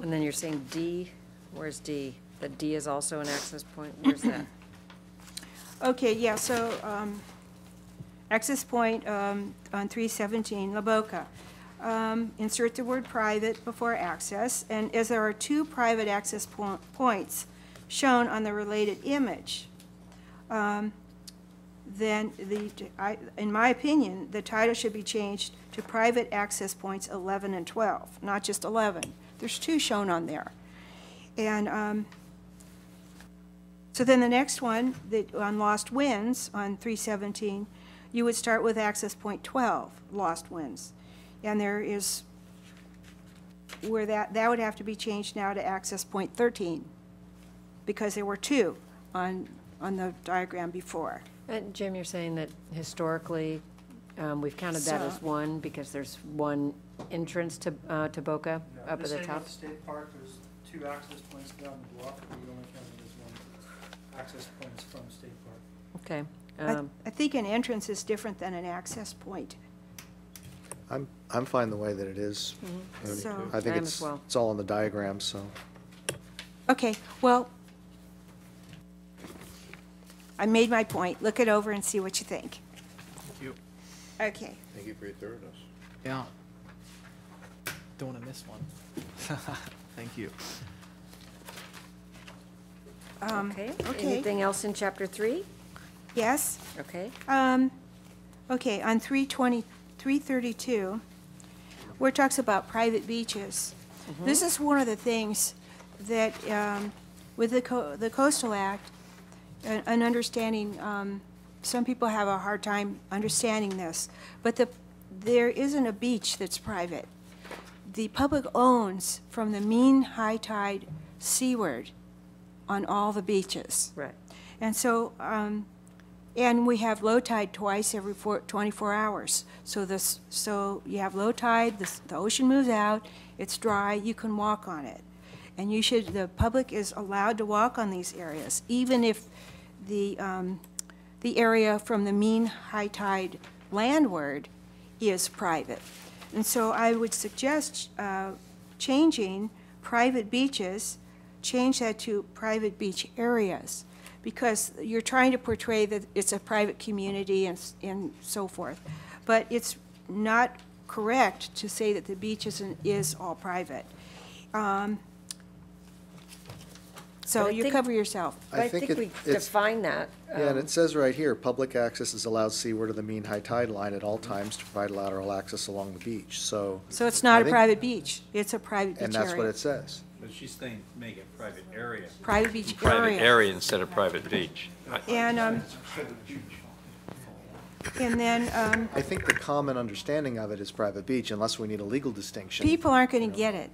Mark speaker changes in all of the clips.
Speaker 1: And then you're saying D, where's D? The D is also an access point, where's that?
Speaker 2: Okay, yeah, so um, access point um, on 317, La Boca. Um, Insert the word private before access, and as there are two private access po- points shown on the related image, um, then the, I- in my opinion, the title should be changed to private access points 11 and 12, not just 11. There's two shown on there. And um, so then the next one, that, on lost winds, on three seventeen, you would start with access point twelve, lost winds. And there is, where that, that would have to be changed now to access point thirteen, because there were two on, on the diagram before.
Speaker 1: And Uh, Jim, you're saying that historically, um, we've counted that as
Speaker 2: So-
Speaker 1: one because there's one entrance to, uh, to Boca
Speaker 3: Yeah,
Speaker 1: up at
Speaker 3: just
Speaker 1: the
Speaker 3: saying
Speaker 1: top?
Speaker 3: with State Park, there's two access points down the block, but you only counted as one access points from State Park.
Speaker 1: Okay.
Speaker 2: I,
Speaker 1: um,
Speaker 2: I think an entrance is different than an access point.
Speaker 4: I'm, I'm fine the way that it is. And
Speaker 2: Mm-hmm. So-
Speaker 4: I think
Speaker 1: I am as
Speaker 4: it's,
Speaker 1: well.
Speaker 4: it's all on the diagram, so.
Speaker 2: Okay, well, I made my point. Look it over and see what you think. Okay.
Speaker 5: Thank you for your thoroughness.
Speaker 6: Yeah. Don't want to miss one. Thank you.
Speaker 2: um,
Speaker 1: Okay,
Speaker 2: okay.
Speaker 1: anything else in chapter three?
Speaker 2: Yes?
Speaker 1: Okay,
Speaker 2: Um, okay, on 320, 332, where it talks about private beaches. This is one of the things that, um, with the co- the coastal act, an an understanding, um, some people have a hard time understanding this, but the, there isn't a beach that's private. The public owns from the mean high tide seaward on all the beaches.
Speaker 1: right.
Speaker 2: And so, um, and we have low tide twice every four, 24 hours. So this, so you have low tide, the, s- the ocean moves out, it's dry, you can walk on it. And you should, the public is allowed to walk on these areas, even if the, um, the area from the mean high tide landward is private. And so I would suggest, uh, changing private beaches, change that to private beach areas, because you're trying to portray that it's a private community and, s- and so forth. But it's not correct to say that the beach is, an- is all private. Um, So
Speaker 1: But I
Speaker 2: you
Speaker 1: think-
Speaker 2: cover yourself.
Speaker 1: But I
Speaker 4: think
Speaker 1: think
Speaker 4: it-
Speaker 1: we
Speaker 4: it's-
Speaker 1: define that.
Speaker 4: Yeah, and
Speaker 1: um,
Speaker 4: it says right here, public access is allowed seaward of the mean high tide line at all times to provide lateral access along the beach, so,
Speaker 2: So it's not
Speaker 4: I
Speaker 2: a
Speaker 4: think-
Speaker 2: private beach, it's a private beach area.
Speaker 4: and that's what it says.
Speaker 7: But she's saying make it private area.
Speaker 2: Private beach area.
Speaker 8: Private area instead of private beach. Uh,
Speaker 2: And, um, and then, um,
Speaker 4: I think the common understanding of it is private beach, unless we need a legal distinction.
Speaker 2: people aren't gonna get it.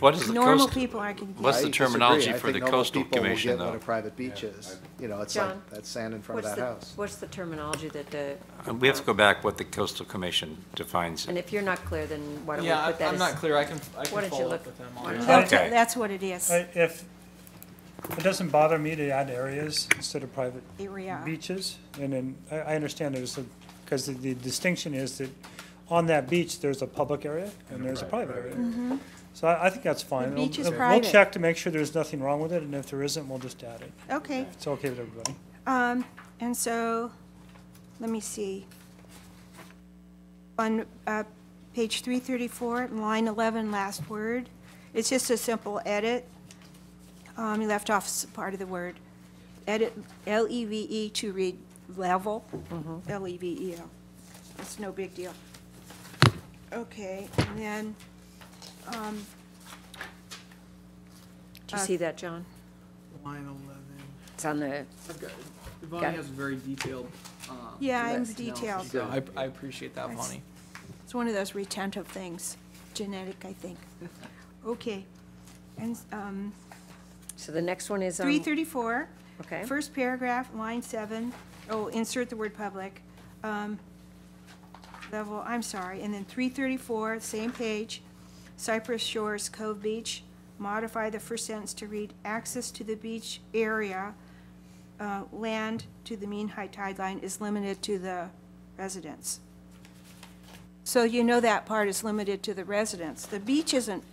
Speaker 8: What is the
Speaker 2: Normal
Speaker 8: coast?
Speaker 2: people aren't gonna get it.
Speaker 8: What's
Speaker 4: I
Speaker 8: the
Speaker 4: disagree.
Speaker 8: terminology
Speaker 4: I
Speaker 8: for
Speaker 4: think
Speaker 8: the
Speaker 4: normal
Speaker 8: coastal
Speaker 4: people will
Speaker 8: commission,
Speaker 4: get what
Speaker 8: though?
Speaker 4: a private beach is, you know, it's
Speaker 1: John,
Speaker 4: like that sand in front
Speaker 1: What's
Speaker 4: of
Speaker 1: the-
Speaker 4: that house.
Speaker 1: What's the terminology that the? um,
Speaker 8: Uh, We have to go back what the coastal commission defines.
Speaker 1: And if you're not clear, then why don't we
Speaker 6: Yeah,
Speaker 1: put
Speaker 6: I-
Speaker 1: that
Speaker 6: I'm not
Speaker 1: as?
Speaker 6: clear. I can, I
Speaker 1: Why
Speaker 6: can
Speaker 1: don't you
Speaker 6: follow
Speaker 1: look-
Speaker 6: up with them
Speaker 1: why
Speaker 6: on
Speaker 1: don't
Speaker 6: that.
Speaker 1: you-
Speaker 2: They'll
Speaker 8: Okay.
Speaker 2: tell- That's what it is,
Speaker 3: I- If, it doesn't bother me to add areas instead of private
Speaker 2: area.
Speaker 3: beaches, and then, I, I understand there's a, because the- the distinction is that on that beach, there's a public area and there's a private
Speaker 1: Mm-hmm.
Speaker 3: area. So I, I think that's fine.
Speaker 2: beach is
Speaker 3: We'll-
Speaker 2: private.
Speaker 3: We'll check to make sure there's nothing wrong with it, and if there isn't, we'll just add it.
Speaker 2: Okay,
Speaker 3: It's okay with everybody.
Speaker 2: um, and so, let me see. On, uh, page three thirty-four, line eleven, last word, it's just a simple edit. Um, you left off s- part of the word. Edit, L-E-V-E E to read level,
Speaker 8: Mm-hmm.
Speaker 2: E L-E-V-E-L. It's no big deal. Okay, and then, um,
Speaker 1: Do you see that, John?
Speaker 6: Line 11.
Speaker 1: It's on the,
Speaker 6: I've got-
Speaker 1: Got
Speaker 6: Vani
Speaker 1: it.
Speaker 6: has a very detailed. um,
Speaker 2: Yeah, I'm
Speaker 6: list analysis,
Speaker 2: detailed.
Speaker 6: so I, I appreciate that,
Speaker 2: That's-
Speaker 6: Vani.
Speaker 2: It's one of those retentive things, genetic, I think. Okay, and, um,
Speaker 1: so the next one is um, on.
Speaker 2: three thirty-four.
Speaker 1: Okay.
Speaker 2: First paragraph, line seven, oh, insert the word public, um, level, I'm sorry, and then three thirty-four, same page, Cypress Shores Cove Beach, modify the first sentence to read, access to the beach area, uh, land to the mean high tide line is limited to the residents. So you know that part is limited to the residents. The beach isn't